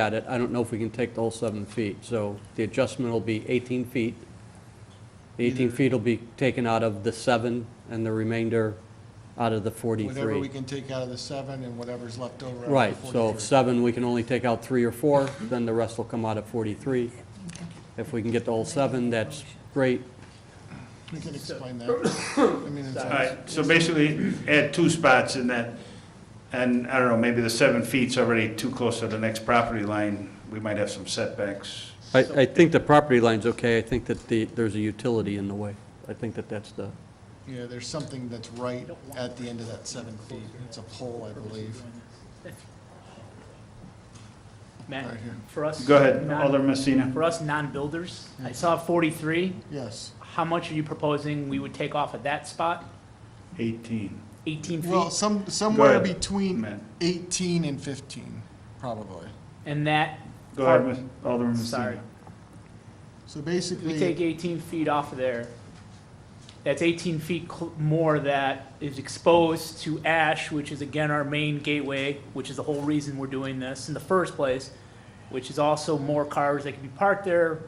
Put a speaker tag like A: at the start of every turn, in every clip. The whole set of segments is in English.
A: at it, I don't know if we can take the whole seven feet, so the adjustment will be 18 feet. The 18 feet will be taken out of the seven, and the remainder out of the
B: Whatever
A: 43.
B: we can take out of the seven and whatever's left over. out of the
A: Right, so if
B: 43.
A: seven, we can only take out three or four, then the rest will come out of 43. If we can get the whole seven, that's great.
B: We can explain that. I mean, it's-
C: All right, so basically add two spots in that, and I don't know, maybe the seven feet's already too close to the next property line. We might have some setbacks.
A: I, I think the property line's okay, I think that the, there's a utility in the way. I think that that's the,
B: yeah, there's something that's right at the end of that seven feet. It's a pole, I believe.
D: Matt,
B: Right here.
D: for us.
C: Go ahead,
D: non-
C: Alderman Messina.
D: For us non-builders, I saw 43.
B: Yes.
D: How much are you proposing we would take off at that spot?
C: 18.
D: 18
B: Well,
D: feet?
B: some, somewhere
C: ahead,
B: between
C: Matt.
B: eighteen and fifteen, probably.
D: And that,
C: Go ahead, Miss- Alderman
D: sorry,
C: Messina.
B: So
D: if we take
B: basically,
D: 18 feet off of there, that's 18 feet cl- more that is exposed to ash, which is again our main gateway, which is the whole reason we're doing this in the first place, which is also more cars that can be parked there,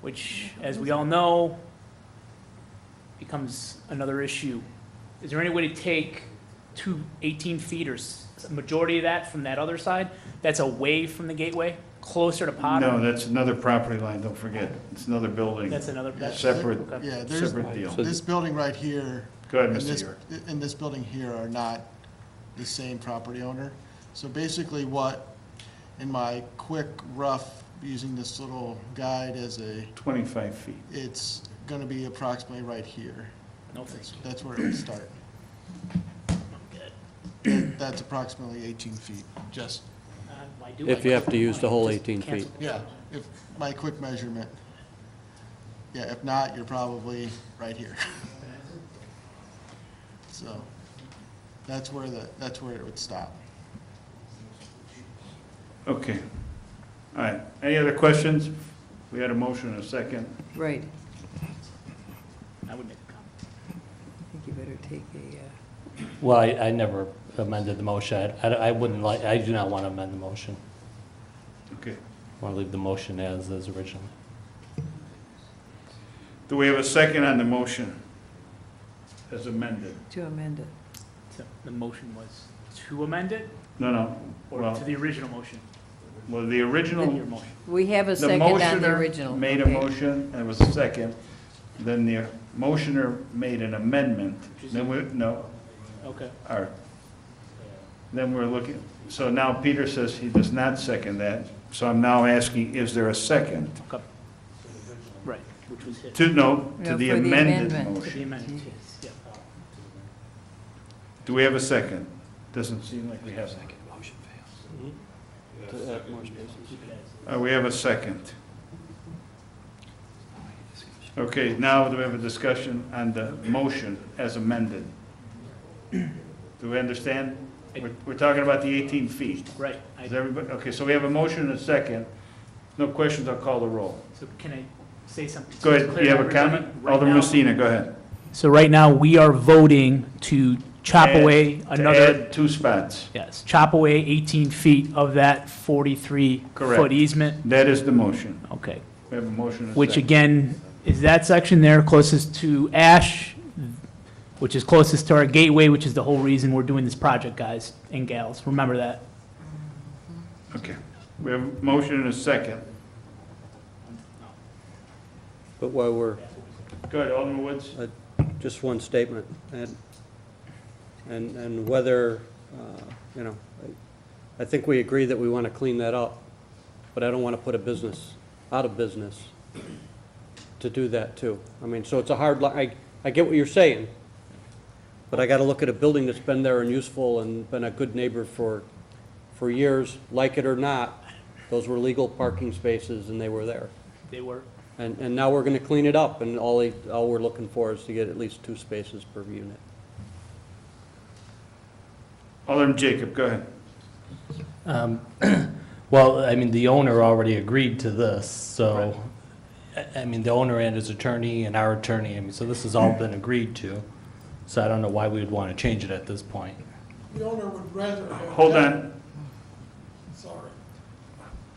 D: which, as we all know, becomes another issue. Is there any way to take two 18 feet or s- majority of that from that other side? That's away from the gateway, closer to Potter?
C: No, that's another property line, don't forget. It's another building.
D: That's another, that's.
C: Separate,
D: okay.
B: yeah, there's,
C: separate deal.
A: So-
B: this building right here
C: Go ahead,
B: and
C: Mr.
B: this,
C: York.
B: and this building here are not the same property owner. So basically what, in my quick rough, using this little guide as a,
C: 25 feet.
B: it's gonna be approximately right here.
D: No, thank
B: That's,
D: you.
B: that's where it would start. That- That's approximately eighteen feet, just,
D: Uh, why do
A: If
D: I
A: you have
D: cancel
A: to use the
D: mine?
A: whole
D: Just
A: 18
D: cancel
A: feet.
B: yeah, if, my quick measurement. Yeah, if not, you're probably right here. So, that's where the, that's where it would stop.
C: Okay. All right, any other questions? We had a motion and a second.
E: Right,
D: I would make a comment.
E: I think you better take a, uh,
F: Well, I, I never amended the motion. I, I wouldn't like, I do not want to amend the motion.
C: Okay.
F: I want to leave the motion as is originally.
C: Do we have a second on the motion as amended?
E: to amend it.
D: So The motion was to amend it
C: No, no,
D: or to
C: well,
D: the original motion?
C: well, the
D: Your
C: original
D: motion.
E: We have a
C: The
E: second on the
C: motioner
E: original.
C: Made a
E: okay.
C: motion, and it was a second, then the motioner made an amendment, then we, no,
D: Okay.
C: or, then we're looking, so now Peter says he does not second that, so I'm now asking, is there a second?
D: Okay. Right, which was hit.
C: To, no, to
E: No,
C: the
E: for the
C: amended
E: amendment.
D: To the
C: motion.
D: amendment, yeah.
C: Do we have a second? Doesn't seem like we have. one.
A: to add more spaces.
C: Uh, we have a second. Okay, now do we have a discussion on the motion as amended? Do we understand? We're, we're talking about the 18 feet.
D: Right. I-
C: Is everybody, okay, so we have a motion and a second. No questions, I'll call the roll.
D: So can I say something? so
C: Go
D: it's
C: ahead,
D: clear
C: you
D: to
C: have a
D: everybody?
C: comment?
D: Right
C: Alderman
D: now-
C: Messina, go ahead.
D: So right now, we are voting to chop
C: Add-
D: away
C: To
D: another,
C: add two spots.
D: yes, chop away 18 feet of that
C: Correct.
D: 43-foot easement.
C: That is the motion.
D: Okay.
C: We have a motion and a second.
D: which again, is that section there closest to Ash, which is closest to our gateway, which is the whole reason we're doing this project, guys and gals, remember that.
C: Okay, we have a motion and a second.
A: But while we're
C: Go ahead, Alderman Woods.
A: uh, just one statement, and, and, and whether, uh, you know, I- I think we agree that we want to clean that up, but I don't want to put a business out of business to do that too. I mean, so it's a hard line, I, I get what you're saying, but I got to look at a building that's been there and useful and been a good neighbor for, for years, like it or not, those were legal parking spaces and they were there.
D: They were.
A: And, and now we're gonna clean it up, and all, they- all we're looking for is to get at least two spaces per unit.
C: Alderman Jacob, go ahead.
F: Um, Well, I mean, the owner already agreed to this, so, I- I mean, the owner and his attorney and our attorney, I mean, so this has all been agreed to. So I don't know why we would want to change it at this point.
G: The owner would rather. have
C: Hold
G: done-
C: on,